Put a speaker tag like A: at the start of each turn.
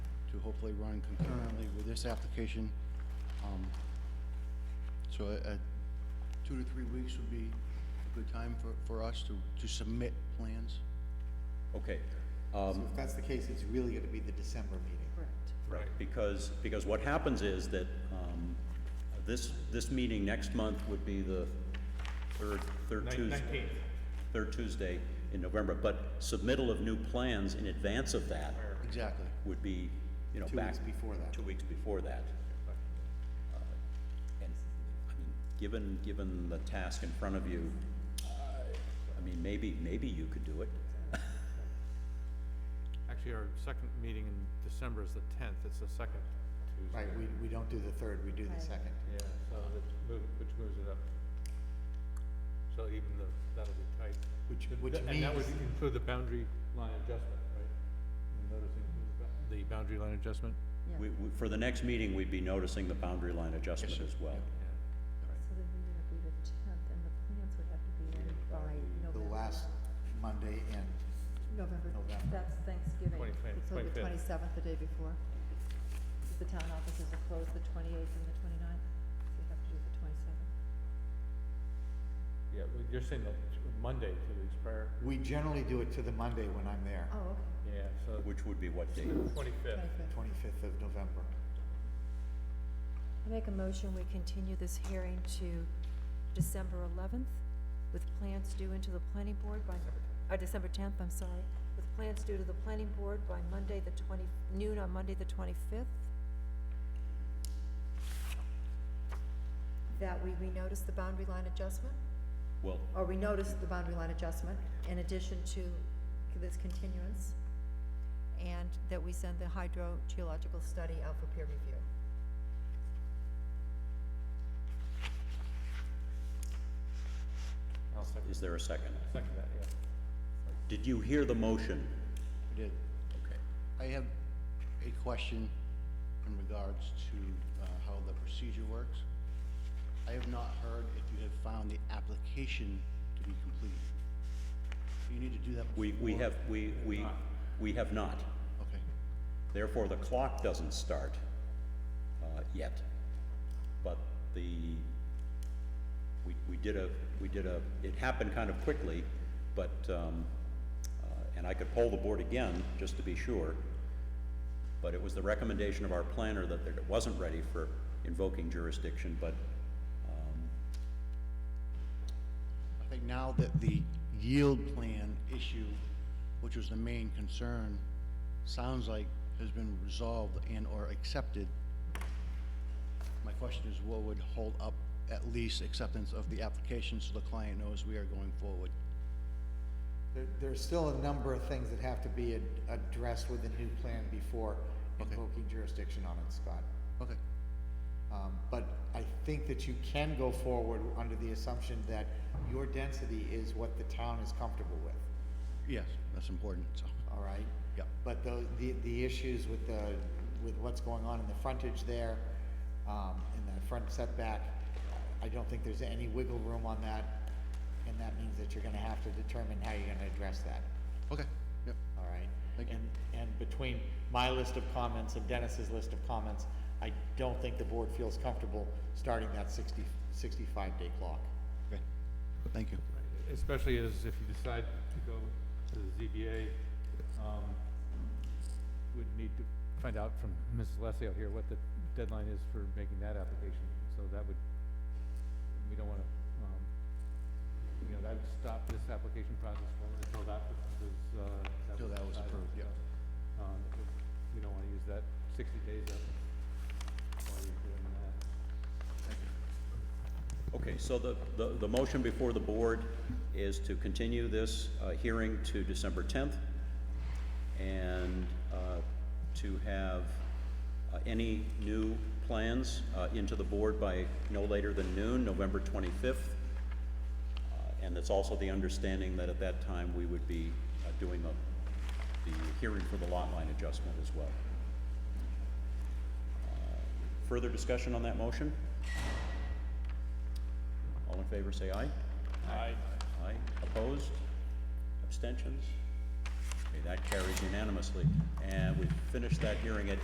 A: hopefully run concurrently with this application. Um, So, uh, two to three weeks would be a good time for, for us to, to submit plans.
B: Okay,
C: Um,
D: So if that's the case, it's really gonna be the December meeting.
B: Right, because, because what happens is that um, this, this meeting next month would be the third, third Tuesday. Third Tuesday in November, but submittal of new plans in advance of that
A: Exactly.
B: would be, you know,
D: Two
B: back.
D: weeks before that.
B: Two weeks before that. Uh, And, I mean, given, given the task in front of you, uh, I mean, maybe, maybe you could do it.
E: Actually, our second meeting in December is the tenth, it's the second Tuesday.
D: Right, we, we don't do the third, we do the
C: Right.
D: second.
E: Yeah, so that's move, which moves it up. So even though, that'll be tight.
D: Which-
E: And
D: which
E: tha- And that would
D: means-
E: include the boundary line adjustment, right? The notice includes ba- The boundary line adjustment?
C: Yeah.
B: We, we- for the next meeting, we'd be noticing the boundary line adjustment as well.
E: Yeah.
C: So then we would have to be the tenth, and the plans would have to be in by
D: The
C: November.
D: last Monday and,
C: November,
D: November.
C: that's Thanksgiving.
E: 25th,
C: So the
E: 25th.
C: twenty-seventh, the day before. 'Cause The town offices are closed the twenty-eighth and the twenty-ninth, so you have to do the twenty-seventh.
E: Yeah, well, you're saying the t- Monday, two weeks prior?
D: we generally do it to the Monday when I'm there,
C: Oh, okay.
E: Yeah, so.
B: Which would be what date?
E: Twenty-fifth.
C: 25th.
D: twenty-fifth of November.
C: I make a motion, we continue this hearing to December eleventh, with plans due into the planning board by, uh, December tenth, I'm sorry, with plans due to the planning board by Monday, the twenty, noon on Monday, the twenty-fifth. That we renotice the boundary line adjustment,
B: Well,
C: or renotice the boundary line adjustment in addition to this continuance, and that we send the hydrogeological study out for peer review.
E: I'll second,
B: is there a second?
E: second that, yeah.
B: Did you hear the motion?
A: We did.
B: Okay.
A: I have a question in regards to uh, how the procedure works. I have not heard if you have found the application to be complete. You need to do that before.
B: We, we have, we, we, we have not.
A: Okay,
B: Therefore, the clock doesn't start, uh, yet. But the, we, we did a, we did a, it happened kind of quickly, but, um, uh, and I could poll the board again, just to be sure. But it was the recommendation of our planner that it wasn't ready for invoking jurisdiction, but
A: I think now that the yield plan issue, which was the main concern, sounds like has been resolved and/or accepted, my question is what would hold up at least acceptance of the application so the client knows we are going forward?
D: There, there's still a number of things that have to be ad- addressed with the new plan before invoking jurisdiction on it, Scott.
A: Okay,
D: Um, but I think that you can go forward under the assumption that your density is what the town is comfortable with.
A: yes, that's important, so,
D: all right?
A: Yep.
D: But the, the, the issues with the, with what's going on in the frontage there, um, in that front setback, I don't think there's any wiggle room on that, and that means that you're gonna have to determine how you're gonna address that,
A: okay, yep,
D: all right?
A: Thank you.
D: And, and between my list of comments and Dennis's list of comments, I don't think the board feels comfortable starting that 60 65 day clock.
A: okay, thank you.
E: Especially as if you decide to go to the ZBA, um, would need to find out from Ms. Leslie here what the deadline is for making that application. So that would, we don't wanna, um, you know, that would stop this application process for, until that was, uh.
A: Till that was approved, yeah.
E: so, Um, we- we don't wanna use that sixty days up while you're doing that.
B: Okay, so the, the, the motion before the board is to continue this, uh, hearing to December tenth, and, uh, to have, uh, any new plans, uh, into the board by no later than noon, November twenty-fifth. Uh, And it's also the understanding that at that time, we would be, uh, doing the, the hearing for the lot line adjustment as well. Uh, Further discussion on that motion? All in favor, say aye. Aye. Aye. Opposed? Abstentions? Okay, that carries unanimously. And we finished that hearing at